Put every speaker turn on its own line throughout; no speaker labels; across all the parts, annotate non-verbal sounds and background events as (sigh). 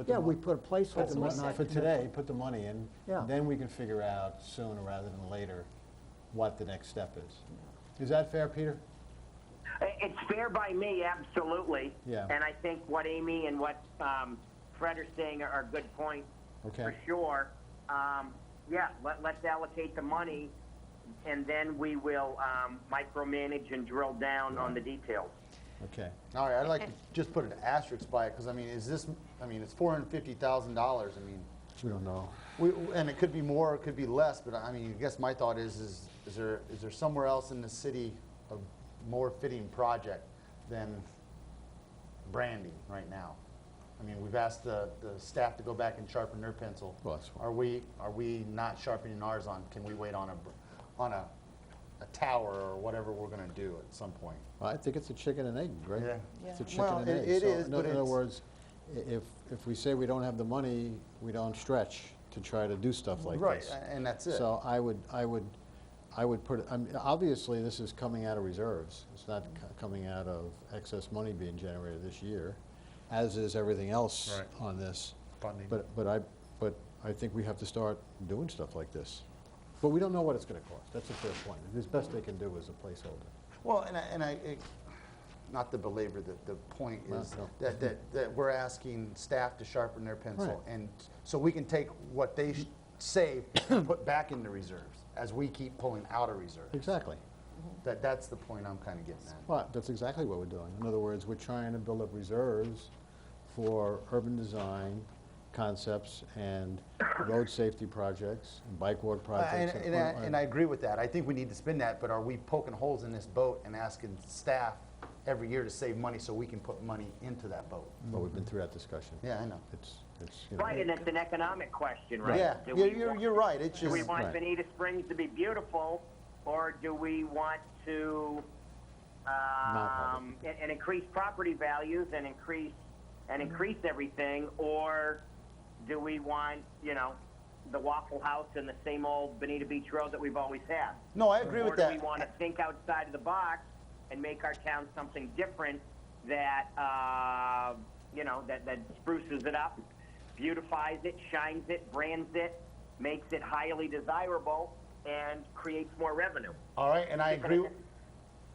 Put the
Yeah, we
mon-
put a
put
placeholder,
the
So what's
mon-
not
For
commit.
today, put the money in.
Yeah.
Then we can figure out sooner rather than later what the next step is. Is that fair, Peter?
It's fair by me, absolutely.
Yeah.
And I think what Amy and what um, Fred are saying are, are good points
Okay.
for sure. Um, yeah, let, let's allocate the money, and then we will um, micromanage and drill down on the details.
Okay.
All right, I'd like to just put an asterisk by it, because I mean, is this, I mean, it's four hundred fifty thousand dollars, I mean,
We don't know.
we, and it could be more, it could be less, but I mean, I guess my thought is, is, is there, is there somewhere else in the city a more fitting project than branding right now? I mean, we've asked the, the staff to go back and sharpen their pencil.
Well, that's fine.
Are we, are we not sharpening ours on, can we wait on a, br- on a, a tower or whatever we're gonna do at some point?
I think it's a chicken and egg, right?
Yeah.
It's a
Yeah.
chicken
Well,
and
it-
egg.
it
So
is,
in
but
oth- In other
it's-
words, i- if, if we say we don't have the money, we don't stretch to try to do stuff like
Right,
this.
a- and that's it.
So I would, I would, I would put, it- I mean, obviously, this is coming out of reserves. It's not c- coming out of excess money being generated this year, as is everything else
Right.
on this.
Funding.
But, but I, but I think we have to start doing stuff like this. But we don't know what it's gonna cost. That's a fair point. It's best they can do is a placeholder.
Well, and I, and I, it- not to belabor the, the point
No,
is
no.
that, that, that we're asking staff to sharpen their pencil.
Right.
And so we can take what they sh- save and put back into reserves as we keep pulling out of reserves.
Exactly.
That, that's the point I'm kind of getting at.
Well, that's exactly what we're doing. In other words, we're trying to build up reserves for urban design concepts and road safety projects, and bike walk
And,
projects.
and I, and I agree with that. I think we need to spend that, but are we poking holes in this boat and asking staff every year to save money so we can put money into that boat?
But we've been through that discussion.
Yeah, I know.
It's, it's, you know.
Right, and it's an economic question, right?
Yeah,
Do
you're,
we
you're,
want-
you're right. It's
Do
just.
we want
Right.
Bonita Springs to be beautiful, or do we want to
have
um, and, and increase property values and increase and increase everything, or do we want you know the Waffle House and the same old Bonita Beach Road that we've always had?
No, I agree
or
with
do
that.
we want to think outside of the box and make our town something different that uh, you know that, that spruces it up, beautifies it, shines it, brands it, makes it highly desirable, and creates more revenue?
All right, and I agree,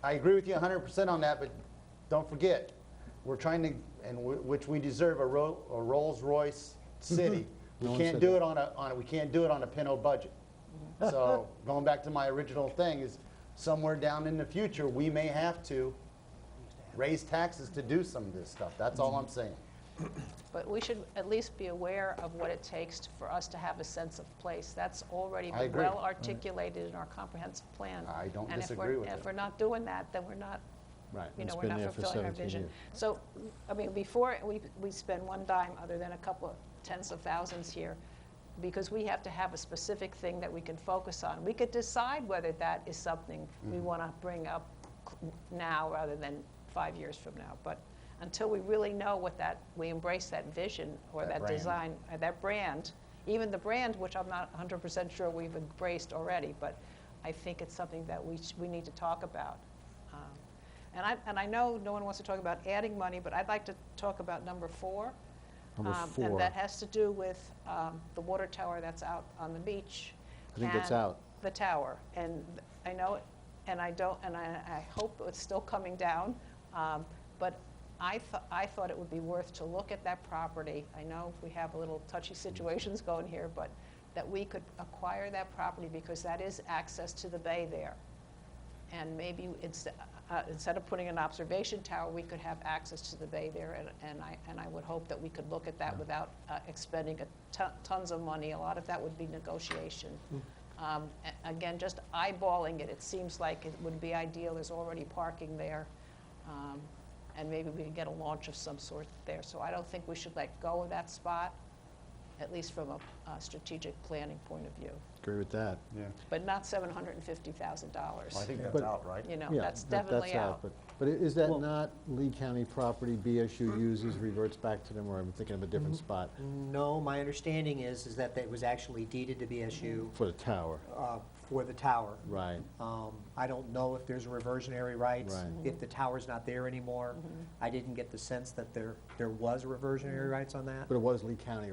I agree with you 100% on that, but don't forget, we're trying to, and wh- which we deserve, a Ro- a Rolls-Royce
(laughs)
city.
No
We
one
can't
said
do
that.
it on a, on a, we can't do it on a
(laughs)
Pinot budget. So going back to my original thing is somewhere down in the future, we may have to raise taxes to do some of this stuff. That's all
Mm-hmm.
I'm saying.
But we should at least be aware of what it takes to- for us to have a sense of place. That's already
I
been
agree. Mm-hmm.
well articulated in our comprehensive plan.
I don't
And if we're-
disagree with
And
it.
if we're not doing that, then we're not,
Right,
you
it's
know, we're
been
not
there for
fulfilling our
17
vision.
years.
So, I mean, before we, we spend one dime other than a couple of tens of thousands here, because we have to have a specific thing that we can focus on. We could decide whether that is something
Mm-hmm.
we want to bring up c- now rather than five years from now. But until we really know what that, we embrace that vision or
That
that
brand.
design, or that brand, even the brand, which I'm not 100% sure we've embraced already, but I think it's something that we, sh- we need to talk about. Um, and I, and I know no one wants to talk about adding money, but I'd like to talk about number four.
Number
Um,
four.
And that has to do with um, the water tower that's out on the beach.
I think that's
and
out.
The tower. And I know, it- and I don't, and I, I hope it's still coming down. um, But I thought, I thought it would be worth to look at that property. I know we have a little touchy situations going here, but that we could acquire that property because that is access to the bay there. And maybe instead, uh, instead of putting an observation tower, we could have access to the bay there, and, and I, and I would hope that we could look at that without uh, expending a ton- tons of money. A lot of that would be negotiation. Um, a- Again, just eyeballing it, it seems like it would be ideal, there's already parking there, um, and maybe we could get a launch of some sort there. So I don't think we should let go of that spot, at least from a uh, strategic planning point of view,
Agree with that.
Yeah.
but not $750,000.
I think
But-
that's out, right?
You know,
Yeah,
that's
that-
definitely
that's
out.
But But i- is that not Lee County property BSU uses reverts back to them, or I'm thinking of a different
Mm-hmm.
spot
No, my understanding is, is that it was actually deeded to BSU
for the tower?
uh, for the tower.
Right.
Um, I don't know if there's reversionary rights,
Right.
if the tower's not there anymore. I didn't get the sense that there, there was reversionary rights on that.
But it was Lee County, right?